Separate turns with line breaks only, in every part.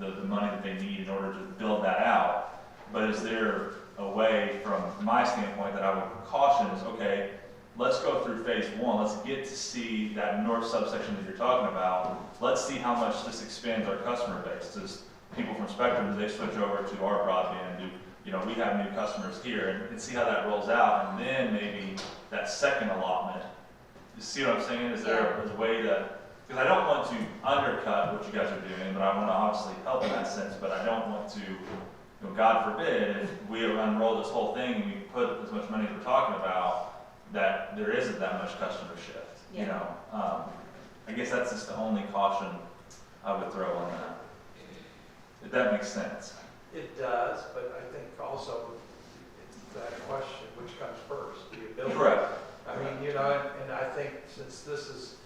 the, the money that they need in order to build that out. But is there a way from my standpoint that I would caution is, okay, let's go through phase one, let's get to see that north subsection that you're talking about. Let's see how much this expands our customer base. Does people from Spectrum, do they switch over to our broadband? Do, you know, we have new customers here and, and see how that rolls out. And then maybe that second allotment. You see what I'm saying? Is there a- is a way to, because I don't want to undercut what you guys are doing, but I want to obviously help in that sense, but I don't want to, you know, God forbid, if we unroll this whole thing and we put as much money as we're talking about, that there isn't that much customer shift, you
Yeah.
know? Um, I guess that's just the only caution I would throw on that. If that makes sense.
It does, but I think also it's that question, which comes first, the ability. I mean, you know, and- and I think since this is,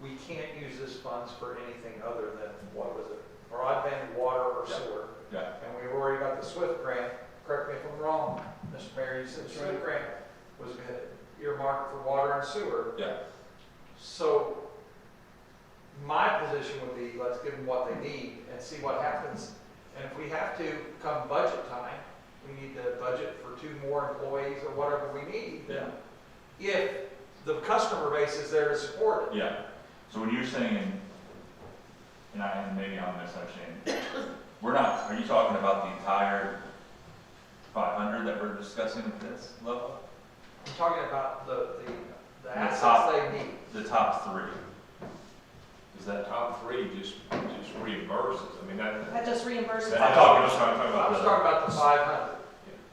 we can't use this funds for anything other than, what was it? Broadband, water, or
Yeah.
sewer.
Yeah.
And we already got the SWIFT grant, correct me if I'm wrong, Mr. Mayor, you said
That's
SWIFT
right.
grant was earmarked for water and sewer.
Yeah.
So my position would be, let's give them what they need and see what happens. And if we have to, come budget time, we need to budget for two more employees or whatever we need.
Yeah.
If the customer base is there to support it.
Yeah, so when you're saying, and I, and maybe I'm misunderstanding, we're not, are you talking about the entire five hundred that we're discussing at this level?
I'm talking about the, the,
The
the
top.
assets they need.
The top three? Is that?
Top three just, just reimburses, I mean, that,
That just reimburses.
that-
I'm talking- I'm sorry, I'm talking
I was talking about the five hundred.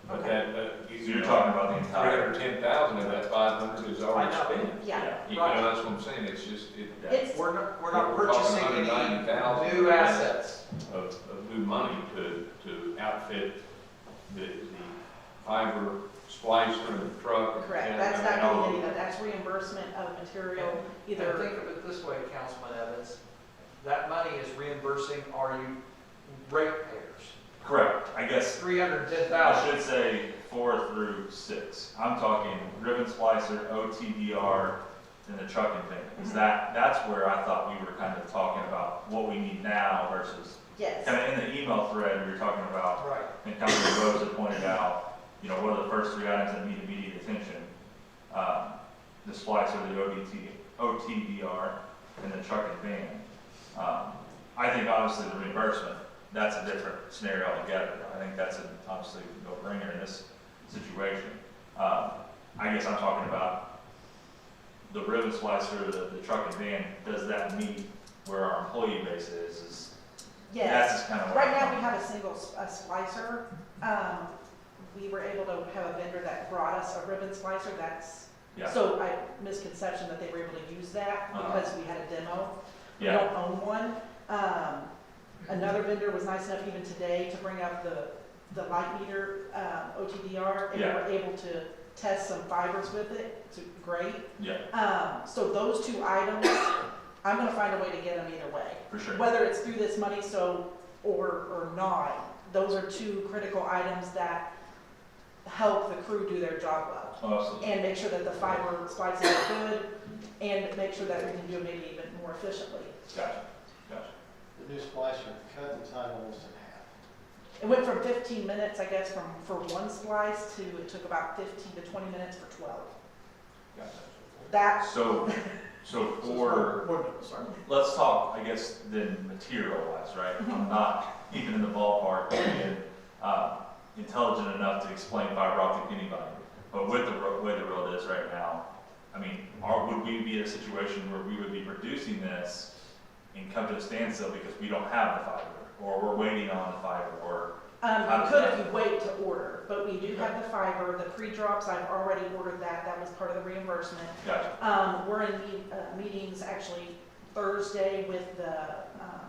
But that, that.
So you're talking about the
Three
entire?
hundred ten thousand of that five hundred is already spent.
Yeah,
You know, that's what I'm saying, it's just, it.
Yeah.
it's,
We're not, we're not
We're talking
purchasing any
190,000.
new assets.
Of, of new money to, to outfit the, the fiber splicer and the truck. and the
correct,
antenna
that's
and
not
all
gonna
of
be any
it.
of that, that's reimbursement of material,
And think
either,
of it this way, Councilman Evans, that money is reimbursing our you ratepayers.
Correct, I guess,
Three hundred and ten
I
thousand,
should say four through six. I'm talking ribbon splicer, OTDR, and the trucking thing. Is
Mhm.
that, that's where I thought we were kind of talking about what we need now versus Kind
yes,
of in the email thread, we were talking about,
right.
and Councilor Rose had pointed out, you know, what are the first three items that need immediate attention? Um, The splice or the OBT, OTDR, and the truck and van. Um, I think obviously the reimbursement, that's a different scenario altogether. I think that's an obviously no bringer in this situation. Um, I guess I'm talking about the ribbon splicer, the, the truck and van, does that meet where our employee base is? Is that's
yes.
just kind of
Right now, we have a single s- a splicer, um, we were able to have a vendor that brought us a ribbon splicer, that's,
Yeah,
so I, misconception that they were able to use that
Uh-huh.
because we had a demo. We
yeah,
don't own one. Um, another vendor was nice enough even today to bring up the, the light meter, um, OTDR, and we
Yeah.
were able to test some fibers with it, it's great.
yeah,
Um, so those two items, I'm gonna find a way to get them either way.
for sure.
Whether it's through this money, so, or, or not, those are two critical items that help the crew do their job well
Oh, Absolutely.
and make sure that the fiber splices are good, and make sure that we can do it maybe even more efficiently.
Gotcha, gotcha.
The new splicer cut the time almost in half.
It went from fifteen minutes, I guess, from, for one splice to, it took about fifteen to twenty minutes for twelve. That,
So, so for,
sorry,
let's talk, I guess, then material-wise, right?
Mm-hmm.
I'm not even in the ballpark of being, uh, intelligent enough to explain fiber optic to anybody. But with the ro- way the world is right now, I mean, are, would we be in a situation where we would be producing this and come to a standstill because we don't have the fiber? Or we're waiting on the fiber, or,
um,
How
you
does
could
that-
if you wait to order, but we do have the fiber, the pre-drops, I've already ordered that, that was part of the reimbursement.
gotcha,
Um, we're in meet- uh, meetings actually Thursday with the, um,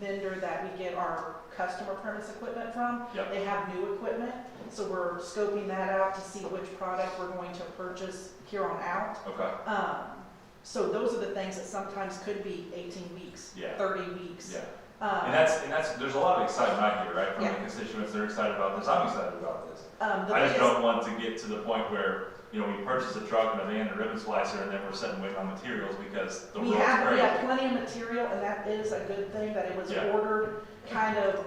vendor that we get our customer premise equipment from.
Yep.
They have new equipment, so we're scoping that out to see which product we're going to purchase here on out.
okay,
Um, so those are the things that sometimes could be eighteen weeks,
Yeah.
thirty weeks.
yeah. And
Um,
that's, and that's, there's a lot of excitement out here, right, from the
Yeah.
constituents, they're excited about this, I'm excited about this.
um, the
I just
biggest,
don't want to get to the point where, you know, we purchase a truck and a van and a ribbon slicer, and then we're sitting waiting on materials because the
we
world's
have, we have
crazy.
plenty of material, and that is a good thing, that it was
Yeah.
ordered. kind of